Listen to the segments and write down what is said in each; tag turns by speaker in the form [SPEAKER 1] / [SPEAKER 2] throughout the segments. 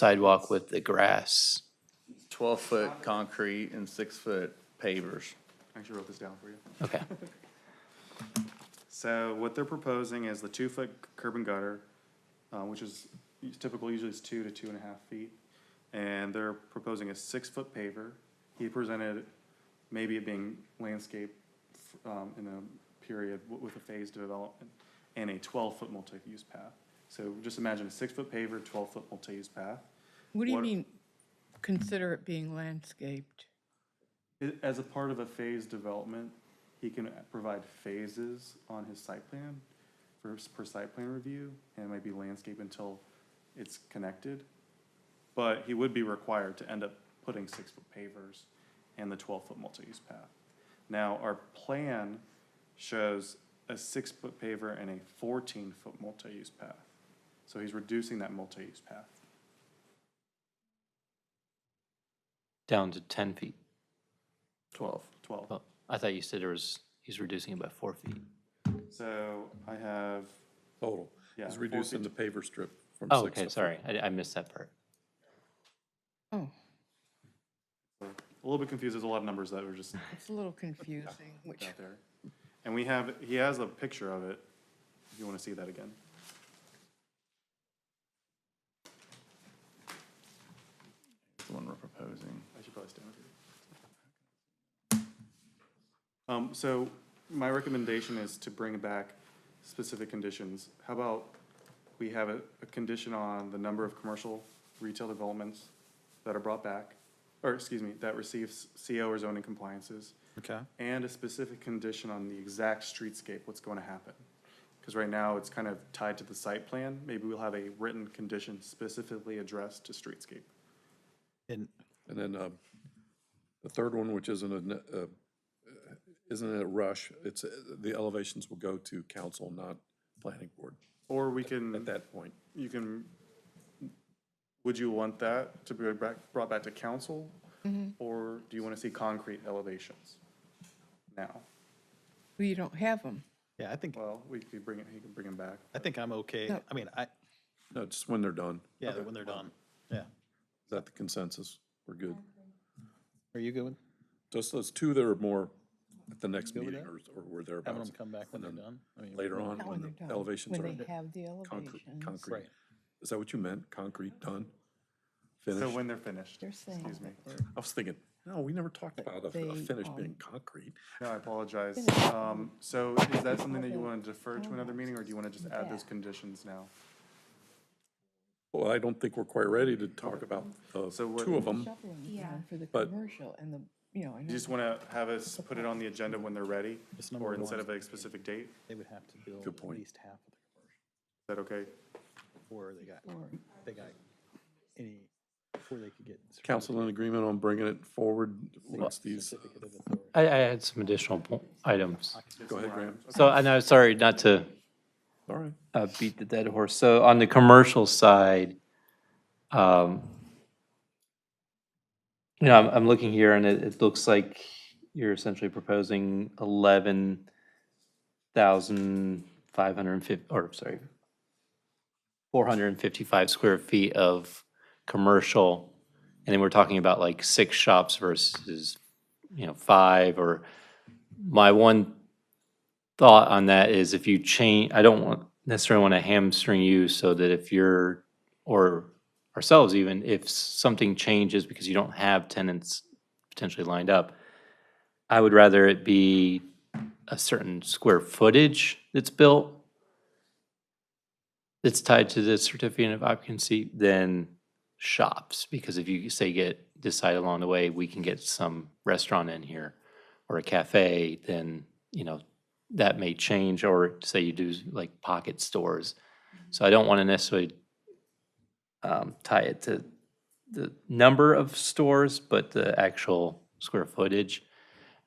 [SPEAKER 1] sidewalk with the grass.
[SPEAKER 2] Twelve-foot concrete and six-foot pavers.
[SPEAKER 3] I actually wrote this down for you.
[SPEAKER 1] Okay.
[SPEAKER 3] So what they're proposing is the two-foot curb and gutter, uh, which is typical, usually is two to two and a half feet. And they're proposing a six-foot paver. He presented maybe it being landscaped um, in a period w- with a phased development and a twelve-foot multi-use path. So just imagine a six-foot paver, twelve-foot multi-use path.
[SPEAKER 4] What do you
[SPEAKER 3] What-
[SPEAKER 4] mean, consider it being landscaped?
[SPEAKER 3] I- As a part of a phased development, he can provide phases on his site plan for, for site plan review, and it might be landscape until it's connected. But he would be required to end up putting six-foot pavers and the twelve-foot multi-use path. Now, our plan shows a six-foot paver and a fourteen-foot multi-use path. So he's reducing that multi-use path.
[SPEAKER 1] Down to ten feet.
[SPEAKER 3] Twelve. Twelve.
[SPEAKER 1] Well, I thought you said there was, he's reducing it by four feet.
[SPEAKER 3] So I have,
[SPEAKER 5] Total.
[SPEAKER 3] Yeah,
[SPEAKER 5] It's
[SPEAKER 3] four
[SPEAKER 5] reducing the
[SPEAKER 3] feet.
[SPEAKER 5] paver strip from six.
[SPEAKER 1] Oh, okay,
[SPEAKER 5] to
[SPEAKER 1] sorry. I, I missed that part.
[SPEAKER 4] Oh,
[SPEAKER 3] a little bit confused, there's a lot of numbers that were just
[SPEAKER 4] it's a little confusing, which,
[SPEAKER 3] out there. And we have, he has a picture of it, if you want to see that again.
[SPEAKER 2] That's The one we're proposing.
[SPEAKER 3] I should probably stand with you. Um, so my recommendation is to bring back specific conditions. How about we have a, a condition on the number of commercial retail developments that are brought back, or excuse me, that receives CO or zoning compliances?
[SPEAKER 5] Okay.
[SPEAKER 3] and a specific condition on the exact streetscape, what's going to happen. Because right now, it's kind of tied to the site plan. Maybe we'll have a written condition specifically addressed to streetscape.
[SPEAKER 6] And
[SPEAKER 5] And then um, the third one, which isn't a, ne- uh, isn't a rush, it's, uh, the elevations will go to council, not planning board
[SPEAKER 3] Or we
[SPEAKER 5] at
[SPEAKER 3] can,
[SPEAKER 5] that point.
[SPEAKER 3] you can, would you want that to be brought brought back to council?
[SPEAKER 4] Mm-hmm.
[SPEAKER 3] Or do you want to see concrete elevations now?
[SPEAKER 4] we don't have them.
[SPEAKER 6] yeah, I think,
[SPEAKER 3] Well, we could bring it, he can bring them back.
[SPEAKER 6] I think I'm okay.
[SPEAKER 4] No.
[SPEAKER 6] I mean, I,
[SPEAKER 5] No, just when they're done.
[SPEAKER 6] yeah, when they're done. Yeah.
[SPEAKER 5] Is that the consensus? We're good.
[SPEAKER 6] Are you good with
[SPEAKER 5] Just those two that are more at the next meeting or, or were
[SPEAKER 6] having
[SPEAKER 5] thereabouts.
[SPEAKER 6] them come back when they're done? I mean,
[SPEAKER 5] Later on,
[SPEAKER 4] Not
[SPEAKER 5] when
[SPEAKER 4] they're
[SPEAKER 5] the
[SPEAKER 4] done,
[SPEAKER 5] elevations are
[SPEAKER 4] When they have the
[SPEAKER 5] concrete,
[SPEAKER 4] elevations.
[SPEAKER 5] concrete.
[SPEAKER 6] Right.
[SPEAKER 5] Is that what you meant? Concrete, done?
[SPEAKER 3] So
[SPEAKER 5] Finished?
[SPEAKER 3] when they're finished,
[SPEAKER 4] They're saying
[SPEAKER 3] excuse me.
[SPEAKER 5] I was thinking, no, we never talked about a- a
[SPEAKER 4] they
[SPEAKER 5] finish
[SPEAKER 4] are-
[SPEAKER 5] being concrete.
[SPEAKER 3] No, I apologize. Um, so is that something that you want to defer to another meeting, or do you want to just add those conditions now?
[SPEAKER 5] Well, I don't think we're quite ready to talk about the
[SPEAKER 3] So what-
[SPEAKER 5] two of them.
[SPEAKER 4] Shoveling ground for the
[SPEAKER 5] But-
[SPEAKER 4] commercial and the, you know, I
[SPEAKER 3] You
[SPEAKER 4] know
[SPEAKER 3] just want to have us put it on the agenda when they're ready,
[SPEAKER 6] It's number
[SPEAKER 3] or
[SPEAKER 6] one.
[SPEAKER 3] instead of a specific date?
[SPEAKER 6] They would have to build
[SPEAKER 5] Good
[SPEAKER 6] at
[SPEAKER 5] point.
[SPEAKER 6] least half of the
[SPEAKER 3] Is that okay?
[SPEAKER 6] commercial before they got,
[SPEAKER 4] Or-
[SPEAKER 6] they got any, before they could get. certificate-
[SPEAKER 5] Council in agreement on bringing it forward once these,
[SPEAKER 6] Certificate of authority.
[SPEAKER 1] I, I had some additional po- items.
[SPEAKER 5] uh, go ahead, Graham.
[SPEAKER 1] So, and I'm sorry not to
[SPEAKER 5] All right.
[SPEAKER 1] uh, beat the dead horse. So on the commercial side, um, you know, I'm, I'm looking here and it, it looks like you're essentially proposing eleven thousand five hundred and fifty, or sorry, four hundred and fifty-five square feet of commercial. And then we're talking about like six shops versus, you know, five or my one thought on that is if you change, I don't want, necessarily want to hamstring you so that if you're, or ourselves even, if something changes because you don't have tenants potentially lined up, I would rather it be a certain square footage that's built that's tied to the certificate of occupancy than shops, because if you say get, decide along the way, we can get some restaurant in here or a cafe, then, you know, that may change, or say you do like pocket stores. So I don't want to necessarily um, tie it to the number of stores, but the actual square footage.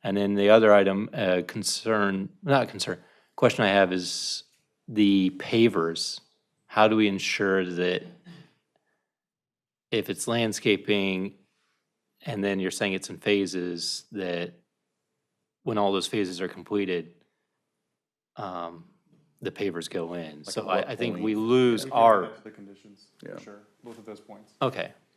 [SPEAKER 1] And then the other item, uh, concern, not concern, question I have is the pavers. How do we ensure that if it's landscaping and then you're saying it's in phases, that when all those phases are completed, um, the pavers go in.
[SPEAKER 2] at
[SPEAKER 1] So
[SPEAKER 2] what
[SPEAKER 1] I, I think we
[SPEAKER 2] point?
[SPEAKER 3] We
[SPEAKER 1] lose
[SPEAKER 3] can add
[SPEAKER 1] our,
[SPEAKER 3] that to The conditions,
[SPEAKER 2] Yeah.
[SPEAKER 3] for sure, both of those points.
[SPEAKER 1] okay.